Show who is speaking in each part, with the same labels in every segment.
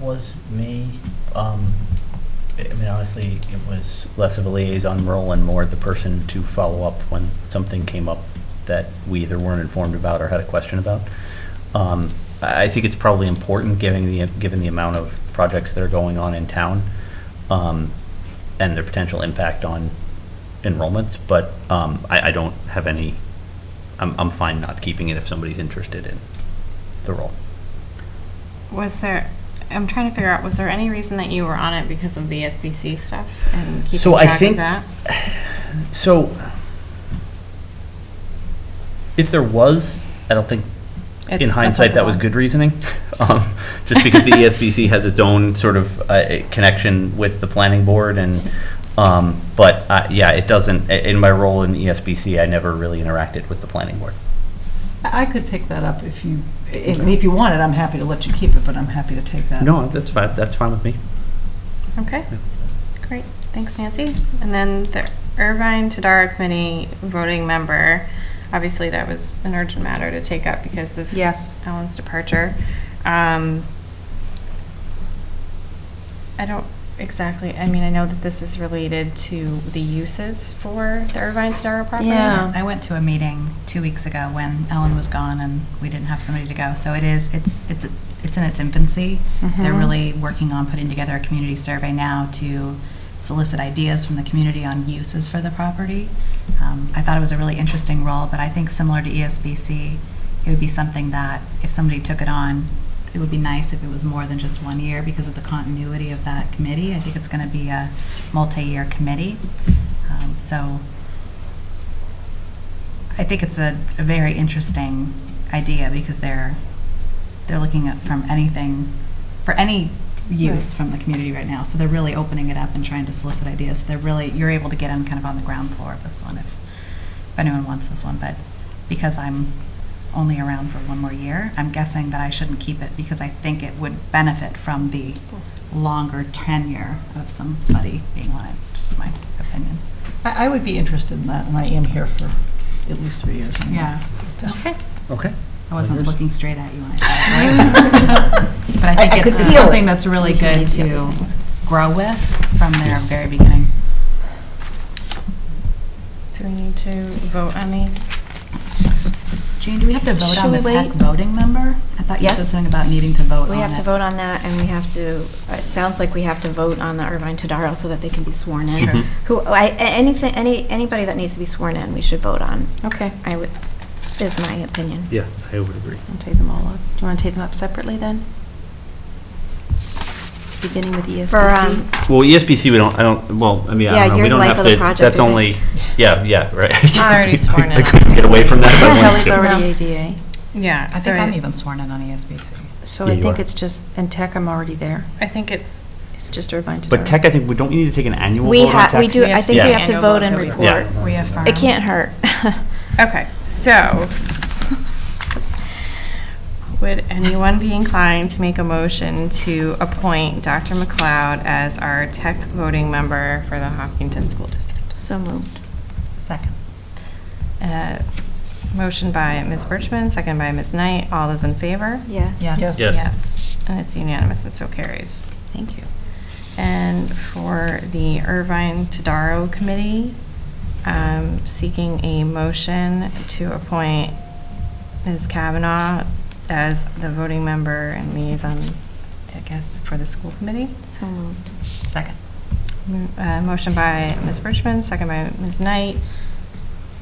Speaker 1: was me. Um, I I mean, honestly, it was less of a liaison role and more the person to follow up when something came up that we either weren't informed about or had a question about. Um, I I think it's probably important, given the, given the amount of projects that are going on in town, um, and their potential impact on enrollments, but, um, I, I don't have any, I'm, I'm fine not keeping it if somebody's interested in the role.
Speaker 2: Was there, I'm trying to figure out, was there any reason that you were on it because of the SBC stuff and keeping
Speaker 1: So I
Speaker 2: track
Speaker 1: think-
Speaker 2: of that?
Speaker 1: So, if there was, I don't think,
Speaker 2: It's
Speaker 1: in hindsight, that was
Speaker 2: applicable.
Speaker 1: good reasoning, um, just because the ESBC has its own sort of uh, connection with the planning board and, um, but, uh, yeah, it doesn't, i- in my role in E ESBC, I never really interacted with the planning board.
Speaker 3: I I could pick that up if you, I mean, if you want it, I'm happy to let you keep it, but I'm happy to take that.
Speaker 1: No, that's fine, that's fine with me.
Speaker 2: Okay, great, thanks Nancy. And then the Irvine Tadara Committee voting member, obviously that was an urgent matter to take up because of
Speaker 4: Yes.
Speaker 2: Ellen's departure. Um, I don't exactly, I mean, I know that this is related to the uses for the Irvine Tadara property.
Speaker 4: Yeah.
Speaker 5: I went to a meeting two weeks ago when Ellen was gone and we didn't have somebody to go. So it is, it's, it's, it's in its infancy. They're
Speaker 4: Mhm.
Speaker 5: really working on putting together a community survey now to solicit ideas from the community on uses for the property. Um, I thought it was a really interesting role, but I think similar to E ESBC, it would be something that if somebody took it on, it would be nice if it was more than just one year because of the continuity of that committee. I think it's going to be a multi-year committee. Um, So I think it's a, a very interesting idea because they're, they're looking at from anything, for any use from the community right now. So they're really opening it up and trying to solicit ideas. So They're really, you're able to get in kind of on the ground floor of this one if, if anyone wants this one. But because I'm only around for one more year, I'm guessing that I shouldn't keep it because I think it would benefit from the longer tenure of somebody being on it, just my opinion.
Speaker 3: I I would be interested in that, and I am here for at least three years. anyway.
Speaker 5: Yeah.
Speaker 2: Okay.
Speaker 1: Okay.
Speaker 5: I wasn't
Speaker 1: Others?
Speaker 5: looking straight at you when I said that, right? But I
Speaker 4: I- I
Speaker 5: think it's
Speaker 4: could
Speaker 5: it's
Speaker 4: feel it.
Speaker 5: something that's really good to grow with from their very beginning.
Speaker 2: Do we need to vote on these?
Speaker 5: Jean, do we have to vote
Speaker 4: Should
Speaker 5: on the
Speaker 4: we
Speaker 5: tech
Speaker 4: wait?
Speaker 5: voting member? I thought you said
Speaker 4: Yes.
Speaker 5: something about needing to vote on it.
Speaker 4: We have to vote on that, and we have to, it sounds like we have to vote on the Irvine Tadaro so that they can be sworn in.
Speaker 1: Sure. Mhm.
Speaker 4: Who, I, a- anything, any, anybody that needs to be sworn in, we should vote on,
Speaker 6: Okay,
Speaker 4: I would, is my opinion.
Speaker 1: Yeah, I would agree.
Speaker 6: I'll take them all up. Do you want to take them up separately then? Beginning with E
Speaker 4: For, um,
Speaker 6: ESBC?
Speaker 1: Well, E ESBC, we don't, I don't, well, I mean, I
Speaker 4: Yeah,
Speaker 1: don't know,
Speaker 4: your
Speaker 1: we don't
Speaker 4: life
Speaker 1: have
Speaker 4: of the
Speaker 1: to,
Speaker 4: project
Speaker 1: that's
Speaker 4: would be-
Speaker 1: only, yeah, yeah, right.
Speaker 2: I'm already sworn in
Speaker 1: I couldn't
Speaker 2: on
Speaker 1: get away from that if I wanted
Speaker 6: Kelly's
Speaker 1: to.
Speaker 6: already ADA,
Speaker 2: Yeah.
Speaker 5: I
Speaker 2: so
Speaker 5: think I'm even sworn in on E ESBC.
Speaker 6: so
Speaker 1: Yeah,
Speaker 6: I
Speaker 1: you
Speaker 6: think
Speaker 1: are.
Speaker 6: it's just, and tech, I'm already there.
Speaker 2: I think it's,
Speaker 6: It's just Irvine Tadaro.
Speaker 1: But tech, I think, we don't you need to take an annual
Speaker 4: We
Speaker 1: vote on
Speaker 4: have,
Speaker 1: tech?
Speaker 4: we do, I think we
Speaker 1: Yeah.
Speaker 4: have to
Speaker 2: Annual
Speaker 4: vote
Speaker 2: vote
Speaker 4: and
Speaker 2: that we-
Speaker 4: report.
Speaker 5: We affirm.
Speaker 4: It can't hurt.
Speaker 2: okay, so, would anyone be inclined to make a motion to appoint Dr. McLeod as our tech voting member for the Hopkinton School District?
Speaker 4: So moved.
Speaker 5: Second.
Speaker 2: Uh, Motion by Ms. Birchman, second by Ms. Knight. All those in favor?
Speaker 4: Yes.
Speaker 5: Yes.
Speaker 1: Yes.
Speaker 2: Yes. And it's unanimous, and so carries. Thank you. And for the Irvine Tadaro Committee, um, seeking a motion to appoint Ms. Kavanaugh as the voting member and liaison, I guess, for the school committee.
Speaker 4: So moved.
Speaker 5: Second.
Speaker 2: Mo- uh, Motion by Ms. Birchman, second by Ms. Knight.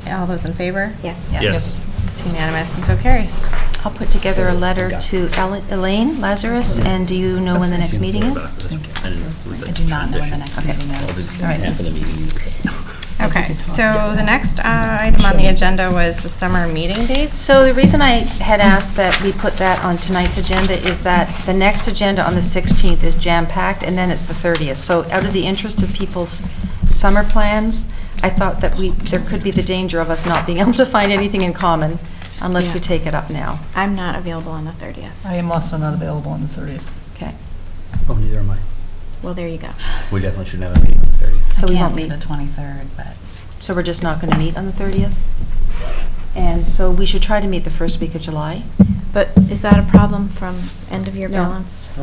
Speaker 2: All those in favor?
Speaker 4: Yes.
Speaker 5: Yes.
Speaker 1: Yes.
Speaker 2: It's unanimous, and so carries.
Speaker 6: I'll put together a letter to Ele- Elaine Lazarus, and do you know when the next meeting is?
Speaker 5: I do not know when the next meeting is. All right.
Speaker 2: Okay, so the next uh, item on the agenda was the summer meeting dates.
Speaker 6: So the reason I had asked that we put that on tonight's agenda is that the next agenda on the 16th is jam-packed, and then it's the 30th. So out of the interest of people's summer plans, I thought that we, there could be the danger of us not being able to find anything in common unless we
Speaker 4: Yeah.
Speaker 6: take it up now.
Speaker 4: I'm not available on the 30th.
Speaker 3: I am also not available on the 30th.
Speaker 6: Okay,
Speaker 1: Oh, neither am I.
Speaker 4: Well, there you go.
Speaker 1: We definitely shouldn't have a meeting on the 30th.
Speaker 6: so
Speaker 5: I
Speaker 6: we
Speaker 5: can't
Speaker 6: won't
Speaker 5: do
Speaker 6: meet.
Speaker 5: the 23rd, but
Speaker 6: So we're just not going to meet on the 30th? And so we should try to meet the first week of July?
Speaker 4: But is that a problem from end of year
Speaker 6: No.
Speaker 4: balance?